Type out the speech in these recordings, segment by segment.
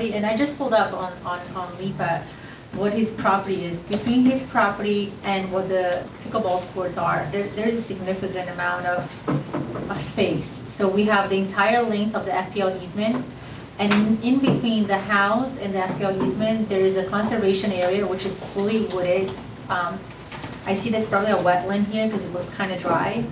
property, and I just pulled up on, on, on MIPA, what his property is. Between his property and what the pickleball courts are, there, there's a significant amount of, of space. So we have the entire length of the FPL easement, and in- in between the house and the FPL easement, there is a conservation area which is fully wooded. Um, I see there's probably a wetland here because it looks kind of dry.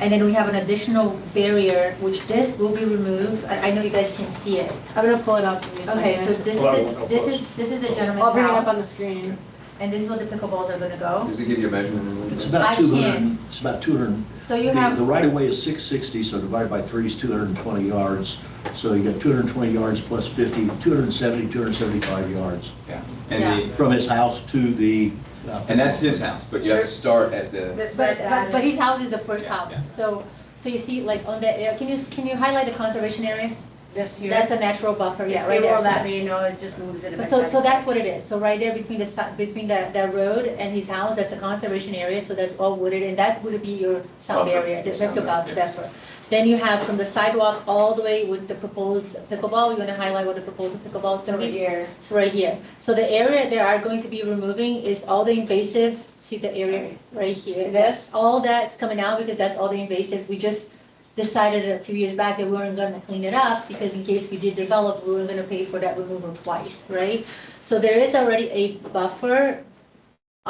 And then we have an additional barrier, which this will be removed. I, I know you guys can see it. I'm gonna pull it up. in just a Okay, so second. this is, Well, I won't the- go this close. is, this is the I'll gentleman's bring it up on the house, scene. and this is where the pickleballs are gonna go. Does it give you a measurement? in It's there? I about two hundred, can't. it's about two hundred, So the you the have, right of way is six sixty, so divided by three is two hundred and twenty yards. So you got two hundred and twenty yards plus 50, 270, 275 yards Yeah. And the, from his house to the. uh, and that's his house, but you have to start at the, This but, uh, but, but red dot is, his house is the first house. yeah. So, so you see like on that area, can you, can you highlight the conservation area? this here. That's a natural buffer, yeah, If right you there. roll So- that, you know, it just moves it. a bit So, so back. that's what it is. So right there between the, si- between the, the road and his house, that's a conservation area, so that's all wooded, and that would be your sound Buffer, area. your That's sound about area. buffer. Then you have from the sidewalk all the way with the proposed pickleball, we're gonna highlight what the proposed pickleball is So gonna right be. here. It's right here. So the area they are going to be removing is all the invasive, see the area right here? This? All that's coming out because that's all the invasives. We just decided a few years back that we weren't gonna clean it up because in case we did develop, we were gonna pay for that removal twice, right? So there is already a buffer.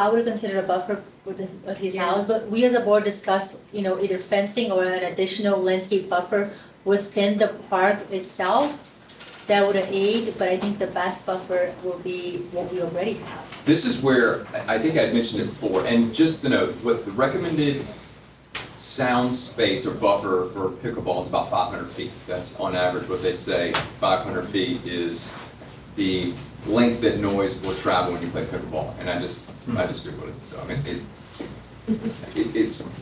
I would consider a buffer with the- with his Yeah. house, but we as a board discussed, you know, either fencing or an additional landscape buffer within the park itself. That would aid, but I think the best buffer will be what we already have. this is where, I I think I'd mentioned it before, and just to note, what the recommended sound space or buffer for pickleball is about 500 feet. That's on average what they say, 500 feet is the length that noise will travel when you play pickleball. And I just, I just agree with it, so I mean, it, it- it's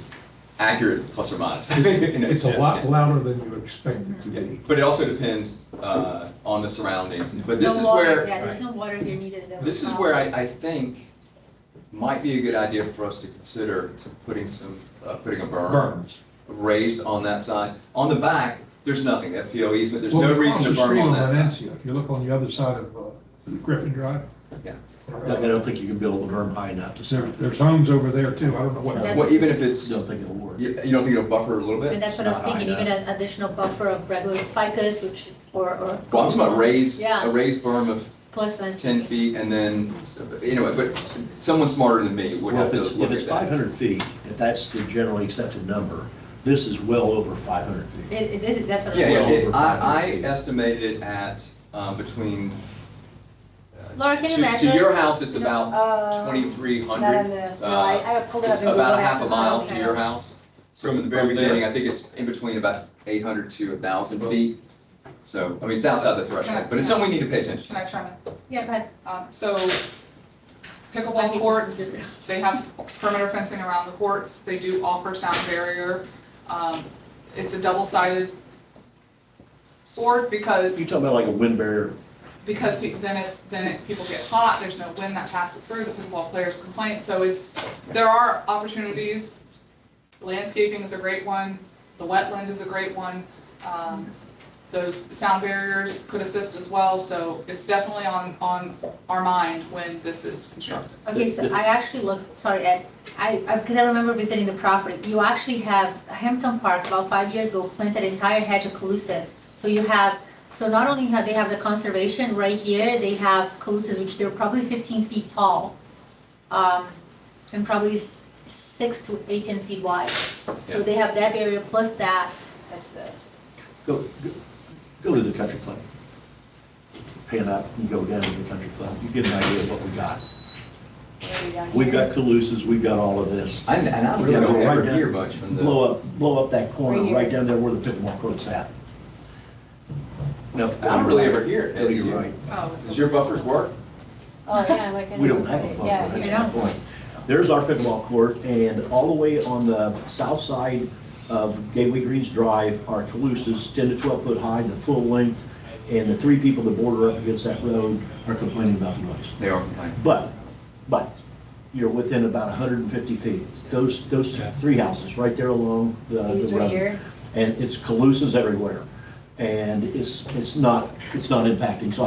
accurate plus or minus. You know, It's a yeah, yeah. lot louder than you expect it to Yeah, be. But it also depends uh, on the surroundings. But this No is water, where, Yeah, there's no water here needed. that this we is have. where I, I think might be a good idea for us to consider putting some, uh, putting a berm Burns. raised on that side. On the back, there's nothing, that PO easement, there's Well, no across reason to the berm street on that side. Valencia, If you look on the other side of uh, Griffin Drive. Yeah. I don't think you can build the berm high enough to There- serve. There's homes over there too. I don't know what. That's- Well, even if it's, Don't you think it'll work. you don't think it'll buffer a little bit? And that's what I It's was not high thinking, even enough. an additional buffer of regular ficus, which, or, or. Well, I'm talking about raised, a Yeah, raised berm of plus and. 10 feet and then, anyway, but someone smarter than me would Well, have if to it's, if look it's at that. 500 feet, if that's the generally accepted number, this is well over 500 feet. It, it is, that's what. I'm Yeah, yeah, Well it- over I, I 500 feet. estimated it at, um, between. uh, Laura, can you to- imagine? To your house, it's No, about Uh, twenty-three Not on hundred. this, no, I, I pulled it up. It's in Google about a Maps, half a it's not mile on to here. your house. So from the very From there. beginning, I think it's in between about eight hundred to a thousand feet. So, I mean, it's outside the threshold, but it's something we need to pay attention. Can I try? Yeah, but. Um, So pickleball courts, they have perimeter fencing around the courts. They do offer sound barrier. Um, It's a double-sided sword because, You're talking about like a wind barrier because pe- then it's, then it- people get hot, there's no wind that passes through, the pickleball players complain. So it's, there are opportunities. Landscaping is a great one. The wetland is a great one. Um, Those sound barriers could assist as well. So it's definitely on, on our mind when this is constructed. Okay, so I actually looked, sorry, Ed, I, because I remember visiting the property. You actually have Hampton Park about five years ago planted an entire hedge of colossus. So you have, so not only have, they have the conservation right here, they have colossus, which they're probably fifteen feet tall. um, And probably s- six to eighteen feet wide. So Yeah. they have that area plus that. That's this. Go, go- go to the country club. Pan up and go down to the country club. You get an idea of what we got. Way down We've here. got Calusas, we've got all of this. I- And I really Yeah, don't right ever down- hear much from the. Blow up, blow up that corner Right here. right down there where the pickleball court's at. No. I don't really ever hear it. Go to your right. Oh, it's Does your buffers work? Oh, yeah, like. I We don't know, have a right, pickleball yeah, court, you that's know. my point. There's our pickleball court, and all the way on the south side of Gateway Greens Drive are Calusas, 10 to 12 foot high, the full length, and the three people that border up against that road are complaining about the noise. They are complaining. But, but, you're within about 150 feet. Those, those three houses right there along the the road. These right here. And it's Calusas everywhere, and it's, it's not, it's not impacting, so